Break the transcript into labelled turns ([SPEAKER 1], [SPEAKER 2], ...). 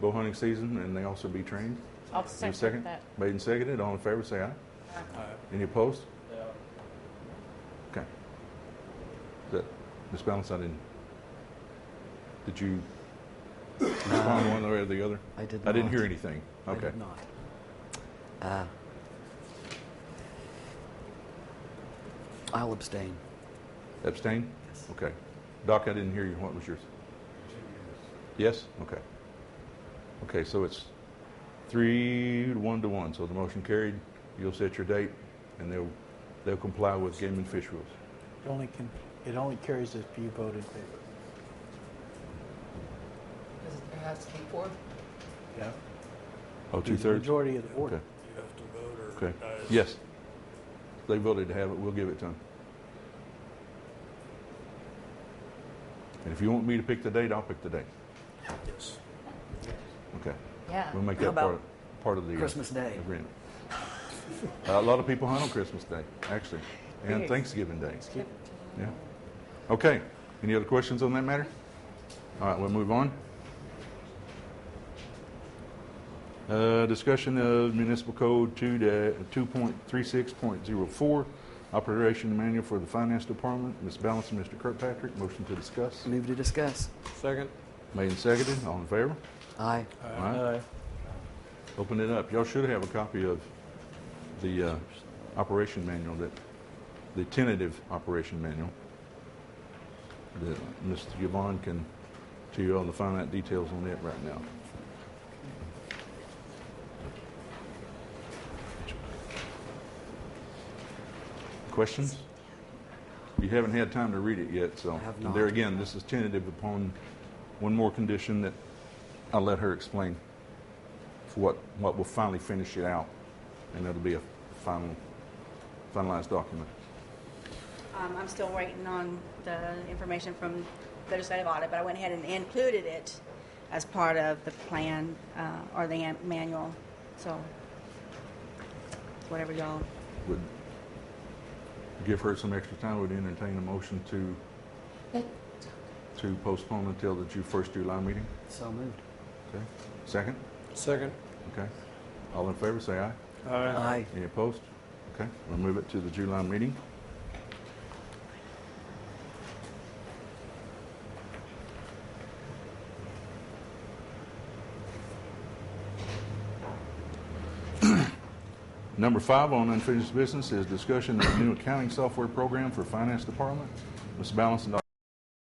[SPEAKER 1] bow hunting season and they also be trained.
[SPEAKER 2] I'll
[SPEAKER 1] Is there a
[SPEAKER 2] second that.
[SPEAKER 1] Made and seconded. All in favor, say aye.
[SPEAKER 3] Aye.
[SPEAKER 1] Any opposed?
[SPEAKER 3] Yeah.
[SPEAKER 1] Okay. Is that, Ms. Balance, I didn't, did you respond one way or the other?
[SPEAKER 4] I did
[SPEAKER 1] I didn't
[SPEAKER 4] not.
[SPEAKER 1] hear anything.
[SPEAKER 4] I
[SPEAKER 1] Okay.
[SPEAKER 4] did not. Uh, I'll abstain.
[SPEAKER 1] Abstain?
[SPEAKER 4] Yes.
[SPEAKER 1] Okay. Doc, I didn't hear you. What was yours? Yes? Okay. Okay, so it's three, to one to one. So the motion carried. You'll set your date and they'll, they'll comply with game and fish rules.
[SPEAKER 5] It only can, it only carries if you vote in favor.
[SPEAKER 6] Does it has to be four?
[SPEAKER 5] Yeah.
[SPEAKER 1] Oh, two-thirds?
[SPEAKER 5] Majority of the board.
[SPEAKER 1] Okay,
[SPEAKER 3] You have to vote or.
[SPEAKER 1] okay.
[SPEAKER 3] uh, it's-
[SPEAKER 1] Yes. They voted to have it. We'll give it to them. And if you want me to pick the date, I'll pick the date.
[SPEAKER 3] Yes.
[SPEAKER 1] Okay.
[SPEAKER 2] Yeah.
[SPEAKER 1] We'll make
[SPEAKER 4] How
[SPEAKER 1] that part,
[SPEAKER 4] about
[SPEAKER 1] part of the. uh,
[SPEAKER 4] Christmas Day?
[SPEAKER 1] Agreement. Uh, A lot of people hunt on Christmas Day, actually, and
[SPEAKER 2] Yes.
[SPEAKER 1] Thanksgiving Day. Yeah. Okay. Any other questions on that matter? All right, we'll move on. Uh, discussion of municipal code two da- two point three six point zero four, operation manual for the finance department. Ms. Balance and Mr. Kirkpatrick, motion to discuss.
[SPEAKER 4] Move to discuss.
[SPEAKER 3] Second.
[SPEAKER 1] Made and seconded. All in favor?
[SPEAKER 4] Aye.
[SPEAKER 1] All right. Open it up. Y'all should have a copy of the uh, operation manual that, the tentative operation manual that Mr. Yvonne can tell you all the fine out details on it right now. Questions? You haven't had time to read it yet, so.
[SPEAKER 4] I have
[SPEAKER 1] and
[SPEAKER 4] not.
[SPEAKER 1] There again, this is tentative upon one more condition that I'll let her explain for what, what will finally finish it out, and it'll be a final, finalized document.
[SPEAKER 7] Um, I'm still waiting on the information from legislative audit, but I went ahead and included it as part of the plan, uh, or the an- manual, so whatever y'all,
[SPEAKER 1] Would give her some extra time, would entertain a motion to, to postpone until the Ju- first July meeting?
[SPEAKER 4] So moved.
[SPEAKER 1] Okay. Second?
[SPEAKER 3] Second.
[SPEAKER 1] Okay. All in favor, say aye.
[SPEAKER 4] Aye.
[SPEAKER 1] Any opposed? Okay, we'll move it to the July meeting. Number five on unfinished business is discussion of new accounting software program for finance department. Ms. Balance and Dr.